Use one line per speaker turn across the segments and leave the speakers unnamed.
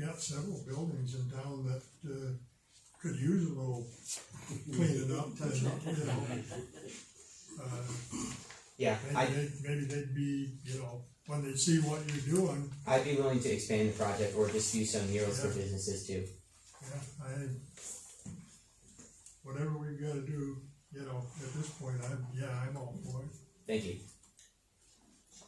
got several buildings in town that, uh, could use a little cleaning up, and, you know. Uh,
Yeah, I,
maybe they'd, maybe they'd be, you know, when they see what you're doing,
I'd be willing to expand the project or just do some murals for
Yeah.
businesses too.
yeah, I, whatever we've gotta do, you know, at this point, I'm, yeah, I'm all for it.
Thank you.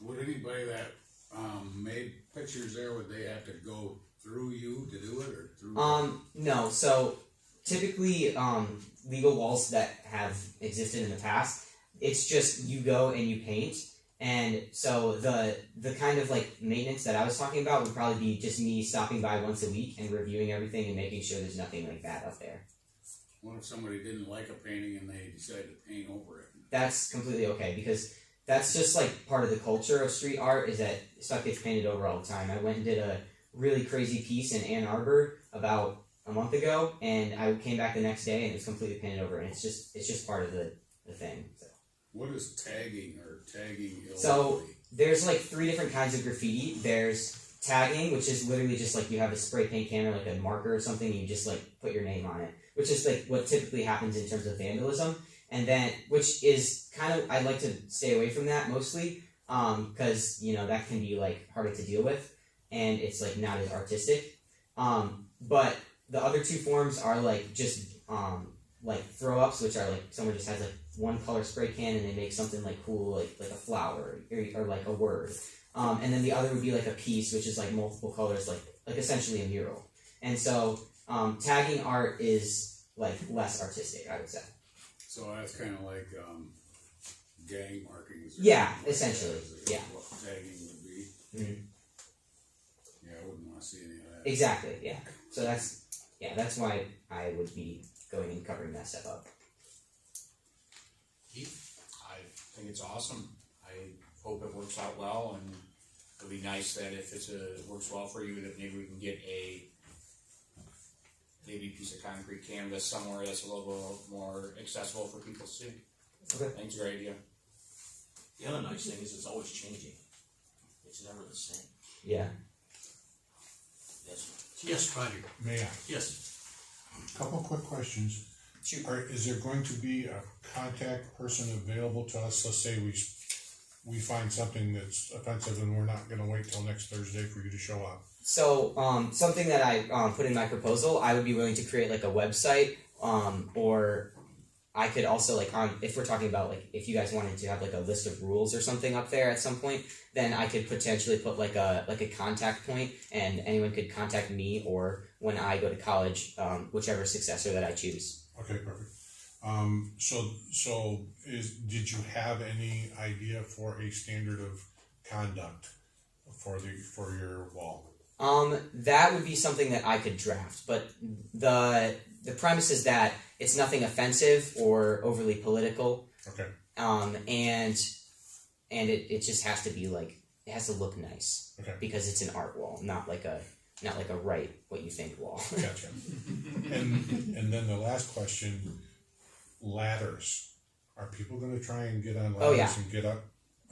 Would anybody that, um, made pictures there, would they have to go through you to do it, or through?
Um, no. So typically, um, legal walls that have existed in the past, it's just you go and you paint, and so the the kind of like maintenance that I was talking about would probably be just me stopping by once a week and reviewing everything and making sure there's nothing like that up there.
What if somebody didn't like a painting and they decided to paint over it?
That's completely okay because that's just like part of the culture of street art is that stuff gets painted over all the time. I went and did a really crazy piece in Ann Arbor about a month ago, and I came back the next day and it was completely painted over, and it's just it's just part of the, the thing. So.
What is tagging or tagging illegally?
So- There's like three different kinds of graffiti. There's tagging, which is literally just like you have a spray paint can or like a marker or something, and you just like put your name on it, which is like what typically happens in terms of vandalism. And then, which is kind of, I'd like to stay away from that mostly, because you know that can be like harder to deal with, and it's like not as artistic. Um, but the other two forms are like just um, like throw ups, which are like someone just has like one color spray can and they make something like cool, like like a flower or, or like a word. Um, and then the other would be like a piece, which is like multiple colors, like like essentially a mural. And so um, tagging art is like less artistic, I would say.
So that's kinda like, um, gang markings. or
Yeah,
something like that,
essentially,
is
yeah.
What tagging would be.
Mhm. Mm-hmm.
Yeah, I wouldn't wanna see any of that.
Exactly, yeah. So that's yeah, that's why I would be going and covering that stuff up.
I think it's awesome. I hope it works out well and it'd be nice that if it's a, works well for you, that maybe we can get a maybe a piece of concrete canvas somewhere that's a little more accessible for people to see.
Okay.
I think it's a great idea.
The other nice thing is it's always changing. It's never the same.
Yeah.
That's,
Yes, Roger.
May I?
Yes.
Couple quick questions. Are, is there going to be a contact person available to us? Let's say we, s- we find something that's offensive and we're not gonna wait till next Thursday for you to show up.
So um, something that I um, put in my proposal, I would be willing to create like a website, um, or I could also like on if we're talking about like if you guys wanted to have like a list of rules or something up there at some point, then I could potentially put like a like a contact point, and anyone could contact me or when I go to college, um, whichever successor that I choose.
Okay, perfect. Um, so, so is, did you have any idea for a standard of conduct for the, for your wall?
Um, that would be something that I could draft, but the the premise is that it's nothing offensive or overly political.
Okay,
um, and and it, it just has to be like it has to look nice
Okay.
because it's an art wall, not like a not like a write what you think wall.
gotcha. And, and then the last question, ladders. Are people gonna try and get on
Oh, yeah.
ladders and get up?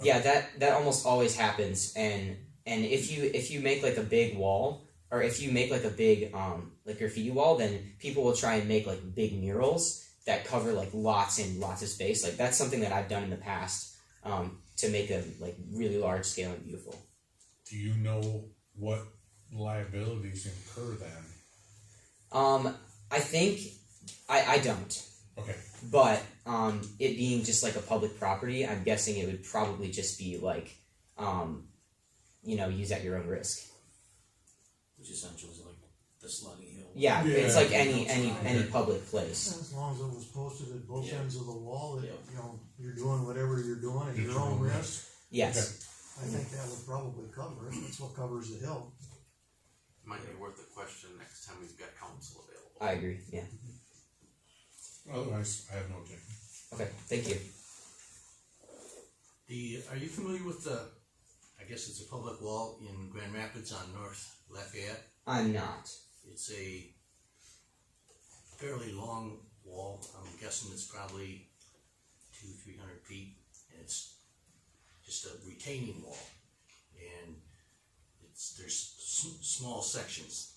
yeah, that that almost always happens, and and if you if you make like a big wall or if you make like a big um like graffiti wall, then people will try and make like big murals that cover like lots and lots of space. Like that's something that I've done in the past um, to make them like really large scale and beautiful.
Do you know what liabilities incur then?
Um, I think I I don't.
Okay,
But um, it being just like a public property, I'm guessing it would probably just be like, um, you know, use at your own risk.
which essentially is like the Sluggy Hill.
Yeah, it's
Yeah.
like any any any public place.
As long as it was posted at both
Yeah.
ends of the wall, that,
Yeah.
you know, you're doing whatever you're doing at
It's
your own
your own
risk,
Yes.
I think that would probably cover it, that's what covers the hill.
Might be worth a question next time we've got council available.
I agree. Yeah.
otherwise, I have no objection.
Okay. Thank you.
The, are you familiar with the, I guess it's a public wall in Grand Rapids on North Lafayette?
I'm not.
It's a fairly long wall, I'm guessing it's probably two, three hundred feet, and it's just a retaining wall. And it's, there's s- small sections